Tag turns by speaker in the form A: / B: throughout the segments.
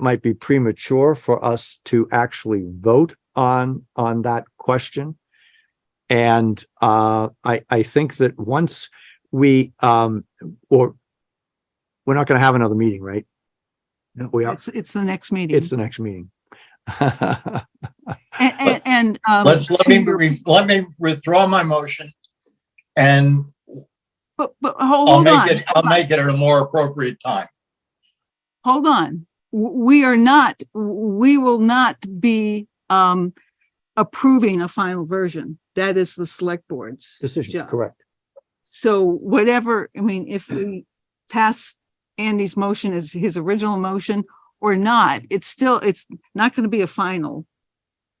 A: might be premature for us to actually vote on, on that question. And uh, I, I think that once we, um, or we're not going to have another meeting, right? No, we are.
B: It's, it's the next meeting.
A: It's the next meeting.
B: And, and, and, um,
C: Let's, let me,
B: to your-
C: re- let me withdraw my motion. And
B: But, but, ho-
C: I'll
B: hold
C: make
B: on,
C: it, I'll make it at a more appropriate time.
B: hold on. W- We are not, we will not be, um, approving a final version. That is the select board's.
A: Decision,
B: job.
A: correct.
B: So whatever, I mean, if we pass Andy's motion as his original motion or not, it's still, it's not going to be a final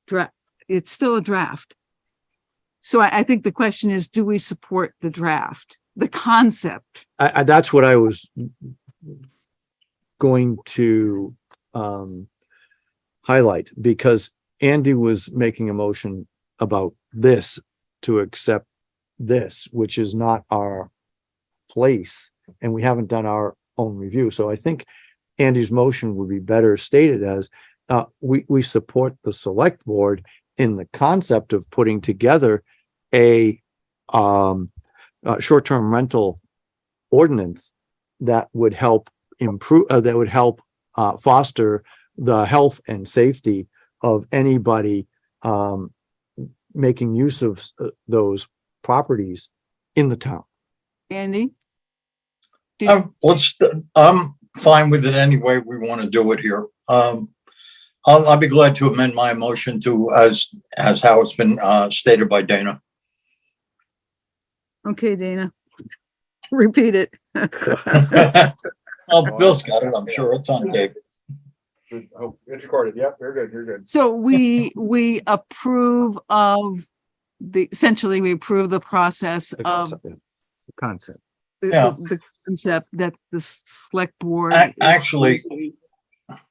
B: draft. It's still a draft. So I, I think the question is, do we support the draft, the concept?
A: I, I, that's what I was going to, um, highlight because Andy was making a motion about this to accept this, which is not our place and we haven't done our own review. So I think Andy's motion would be better stated as, uh, we, we support the select board in the concept of putting together a, um, uh, short-term rental ordinance that would help improve, uh, that would help, uh, foster the health and safety of anybody, um, making use of uh, those properties in the town.
B: Andy? Did-
C: Um, let's, I'm fine with it any way we want to do it here. Um, I'll, I'll be glad to amend my motion to as, as how it's been, uh, stated by Dana.
B: Okay, Dana. Repeat it.
C: Oh, Bill's got it. I'm sure it's on tape.
D: Oh, it's recorded. Yep, you're good, you're good.
B: So we, we approve of the, essentially we approve the process
A: The
B: of
A: concept, yeah. The Concept.
B: the,
C: Yeah.
B: the concept that the select board.
C: Ac-
B: is-
C: actually,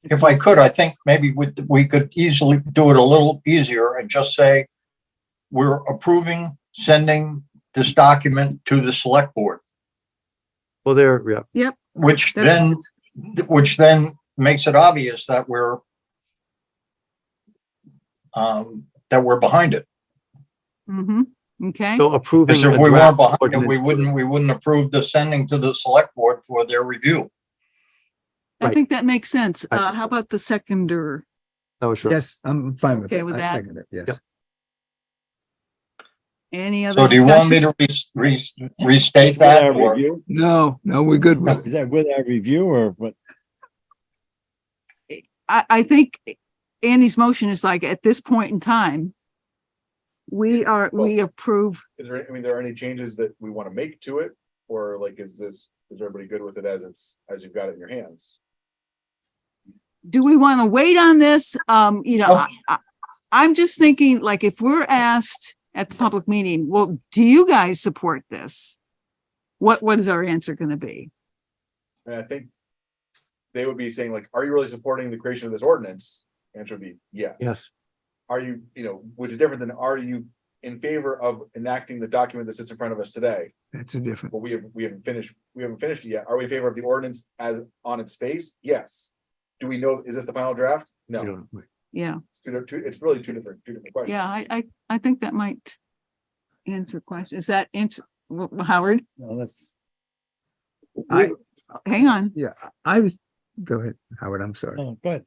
C: if I could, I think maybe we, we could easily do it a little easier and just say we're approving sending this document to the select board,
A: Well, there, yeah,
C: which
B: That's-
C: then, which then makes it obvious that we're um, that we're behind it.
B: Mhm, okay,
A: so approving.
C: Because if
A: a
C: we
A: draft
C: weren't behind it, we
A: ordinance-
C: wouldn't, we wouldn't approve the sending to the select board for their review.
B: I
A: right.
B: think that makes sense.
A: I
B: Uh,
A: think
B: how about the seconder?
A: No, Oh, sure.
E: Yes, I'm fine with
B: Okay
E: it.
B: with
E: I
B: that?
E: second it, yes.
B: Any other?
C: So do you want me to
B: discussions?
C: res- res- restate that or?
E: No, no, we're good with it.
F: Is that with our review or what?
B: I, I think Andy's motion is like, at this point in time, we are, we approve,
D: Is there, I mean, there are any changes that we want to make to it? Or like, is this, is everybody good with it as it's, as you've got it in your hands?
B: do we want to wait on this? Um, you know,
C: Oh.
B: I, I, I'm just thinking, like, if we're asked at the public meeting, well, do you guys support this? What, what is our answer going to be?
D: And I think they would be saying like, are you really supporting the creation of this ordinance? Answer would be yes.
A: Yes,
D: Are you, you know, which is different than are you in favor of enacting the document that sits in front of us today?
E: That's a different,
D: But we have, we haven't finished, we haven't finished it yet. Are we in favor of the ordinance as on its face? Yes. Do we know, is this the final draft?
A: you
D: No.
A: don't-
B: Yeah.
D: It's two- two- It's really two different, two different questions.
B: Yeah, I, I, I think that might answer question. Is that answer, Wh- wh- Howard,
F: No, that's,
E: I-
B: hang on.
E: yeah, I was, go ahead, Howard, I'm sorry.
F: no, good.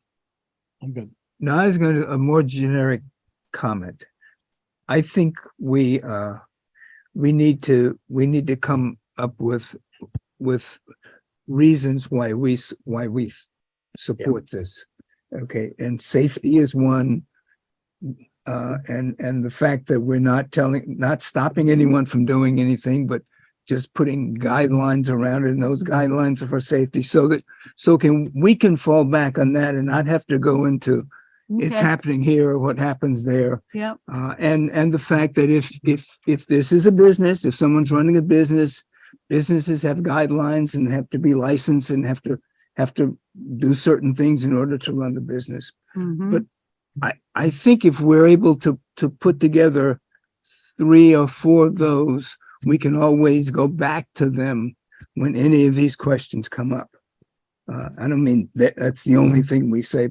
F: I'm good.
E: No, I was going to, a more generic comment. I think we, uh, we need to, we need to come up with, with reasons why we, s- why we s- support this. Okay, and safety is one. Uh, and, and the fact that we're not telling, not stopping anyone from doing anything, but just putting guidelines around it and those guidelines are for safety so that, so can, we can fall back on that and not have to go into it's
B: Okay.
E: happening here, what happens there.
B: Yep.
E: Uh, and, and the fact that if, if, if this is a business, if someone's running a business, businesses have guidelines and have to be licensed and have to, have to do certain things in order to run the business.
B: Mhm.
E: But- I, I think if we're able to, to put together three or four of those, we can always go back to them when any of these questions come up. Uh, I don't mean that, that's the only thing we say,